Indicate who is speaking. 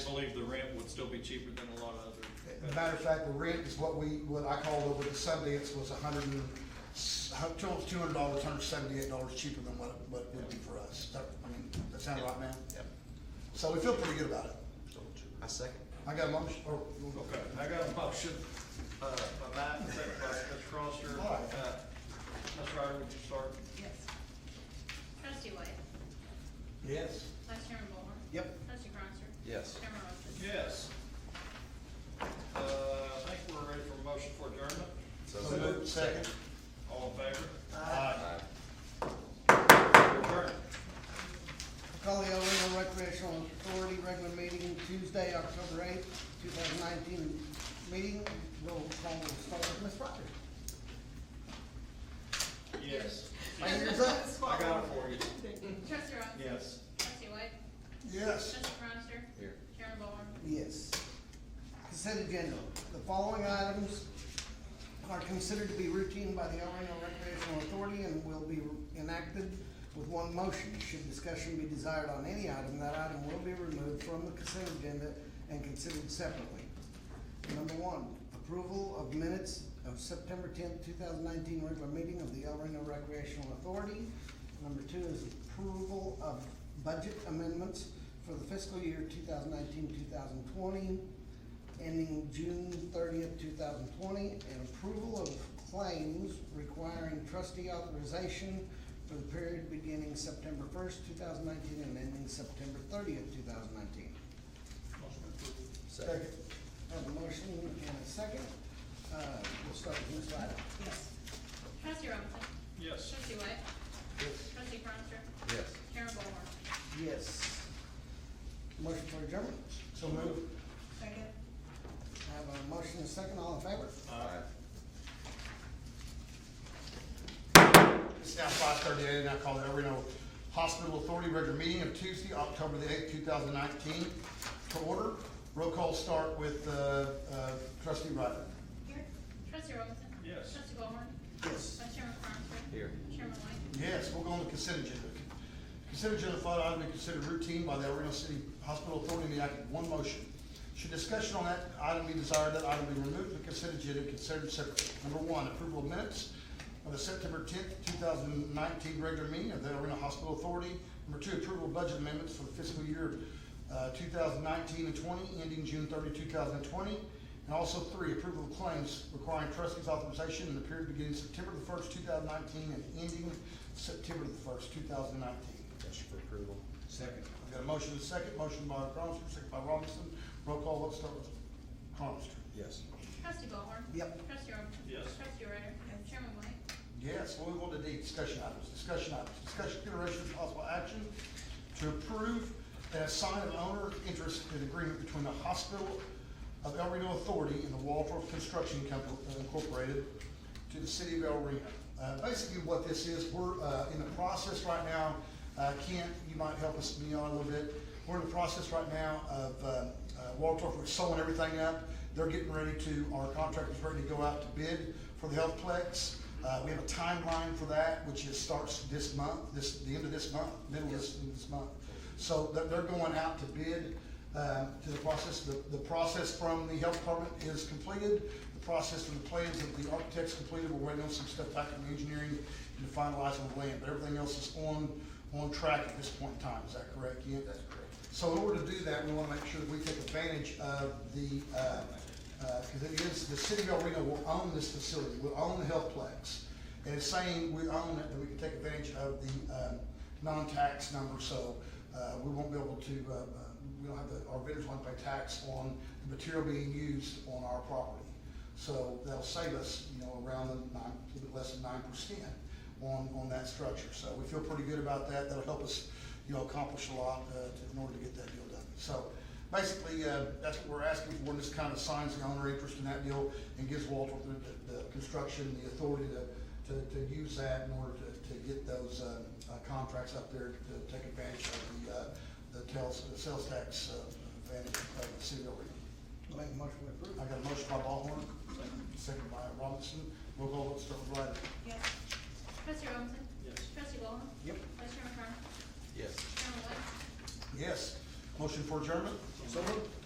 Speaker 1: believe the rent would still be cheaper than a lot of other.
Speaker 2: As a matter of fact, the rent is what we, what I called over at Sundance was a hundred and, two hundred dollars, hundred seventy-eight dollars cheaper than what, what it would be for us. That, I mean, that sound right, man?
Speaker 3: Yep.
Speaker 2: So we feel pretty good about it.
Speaker 3: I second.
Speaker 2: I got a motion, or.
Speaker 1: Okay, I got a motion, uh, by Matt, and second by Mr. Cronister.
Speaker 2: All right.
Speaker 1: Uh, Ms. Ryder, would you start?
Speaker 4: Yes.
Speaker 5: Trustee White.
Speaker 2: Yes.
Speaker 5: Vice Chairman Ballhorn.
Speaker 3: Yep.
Speaker 5: Trustee Cronster.
Speaker 3: Yes.
Speaker 5: Chairman Rosser.
Speaker 1: Yes. Uh, I think we're ready for a motion for adjournment.
Speaker 2: So moved, second.
Speaker 1: All in favor?
Speaker 3: Aye.
Speaker 1: Adjourn.
Speaker 6: Call the El Reno Recreational Authority regular meeting Tuesday, October eighth, two thousand nineteen. Meeting, roll call will start with Ms. Proctor.
Speaker 1: Yes.
Speaker 6: My ears up.
Speaker 1: I got it for you.
Speaker 5: Trustee Robinson.
Speaker 1: Yes.
Speaker 5: Trustee White.
Speaker 2: Yes.
Speaker 5: Trustee Cronster.
Speaker 3: Here.
Speaker 5: Chairman Ballhorn.
Speaker 6: Yes. Consent agenda. The following items are considered to be routine by the El Reno Recreational Authority and will be enacted with one motion. Should discussion be desired on any item, that item will be removed from the consent agenda and considered separately. Number one, approval of minutes of September tenth, two thousand nineteen regular meeting of the El Reno Recreational Authority. Number two is approval of budget amendments for the fiscal year 2019-2020, ending June thirtieth, two thousand twenty, and approval of claims requiring trustee authorization for the period beginning September first, two thousand nineteen, and ending September thirtieth, two thousand nineteen.
Speaker 1: Motion approved.
Speaker 3: Second.
Speaker 6: Have a motion and a second. Uh, we'll start with Ms. Ryder.
Speaker 4: Yes.
Speaker 5: Trustee Robinson.
Speaker 1: Yes.
Speaker 5: Trustee White.
Speaker 6: Yes.
Speaker 5: Trustee Cronster.
Speaker 3: Yes.
Speaker 5: Chairman Ballhorn.
Speaker 6: Yes. Motion for adjournment.
Speaker 2: So moved.
Speaker 4: Second?
Speaker 6: Have a motion and a second. All in favor?
Speaker 3: Aye.
Speaker 2: It's now five thirty-eight, and I call the El Reno Hospital Authority regular meeting of Tuesday, October the eighth, two thousand nineteen, to order. Roll call start with, uh, uh, trustee Ryder.
Speaker 5: Here. Trustee Robinson.
Speaker 1: Yes.
Speaker 5: Trustee Ballhorn.
Speaker 6: Yes.
Speaker 5: Vice Chairman Cronster.
Speaker 3: Here.
Speaker 5: Chairman White.
Speaker 2: Yes, we'll go on the consent agenda. Consent agenda thought item to be considered routine by the El Reno City Hospital Authority and be acted in one motion. Should discussion on that item be desired, that item be removed from the consent agenda and considered separately. Number one, approval of minutes of the September tenth, two thousand nineteen regular meeting of the El Reno Hospital Authority. Number two, approval of budget amendments for the fiscal year, uh, two thousand nineteen and twenty, ending June 30, 2020. And also three, approval of claims requiring trustees authorization in the period beginning September the first, two thousand nineteen, and ending September the first, two thousand nineteen.
Speaker 3: Motion for approval.
Speaker 2: Second. I've got a motion and a second, motion by Cronister, second by Robinson, roll call, let's start with Cronister.
Speaker 3: Yes.
Speaker 5: Trustee Ballhorn.
Speaker 6: Yep.
Speaker 5: Trustee Robinson.
Speaker 1: Yes.
Speaker 5: Trustee Ryder. Chairman White.
Speaker 2: Yes, we'll move on to D, discussion items, discussion items, discussion consideration of possible action to approve and assign an owner interest in agreement between the Hospital of El Reno Authority and the Waldorf Construction Company uh, Incorporated to the city of El Reno. Uh, basically what this is, we're, uh, in the process right now, uh, Kent, you might help us me on a little bit. We're in the process right now of, uh, uh, Waldorf, we're sewing everything up. They're getting ready to, our contractor's ready to go out to bid for the Healthplex. Uh, we have a timeline for that, which is starts this month, this, the end of this month, middle of this, this month. So they're, they're going out to bid, uh, to the process, the, the process from the health department is completed. The process from the plans of the architects completed, we're waiting on some stuff back from engineering and to finalize on the land, but everything else is on, on track at this point in time, is that correct, Kent? That's correct. So in order to do that, we wanna make sure that we take advantage of the, uh, because it is, the city of El Reno will own this facility, will own the healthplex. And it's saying we own it, and we can take advantage of the, um, non-tax number, so, uh, we won't be able to, uh, uh, we don't have the, our vendors won't pay tax on the material being used on our property. So that'll save us, you know, around the nine, a little bit less than nine percent on, on that structure. So we feel pretty good about that, that'll help us, you know, accomplish a lot, uh, to- in order to get that deal done. So, basically, uh, that's what we're asking for, and this kind of signs the owner interest in that deal and gives Walter the, the, the construction, the authority to, to, to use that in order to, to get those, uh, uh, contracts up there to take advantage of the, uh, the tales, the sales tax, uh, advantage of the city of Reno.
Speaker 6: Make a motion to approve.
Speaker 2: I got a motion by Ballhorn, second by Robinson, we'll go, let's start with Ryder.
Speaker 4: Yes.
Speaker 5: Trustee Robinson.
Speaker 1: Yes.
Speaker 5: Trustee Ballhorn.
Speaker 6: Yep.
Speaker 5: Vice Chairman Cronster.
Speaker 3: Yes.
Speaker 5: Chairman White.
Speaker 2: Yes, motion for adjournment?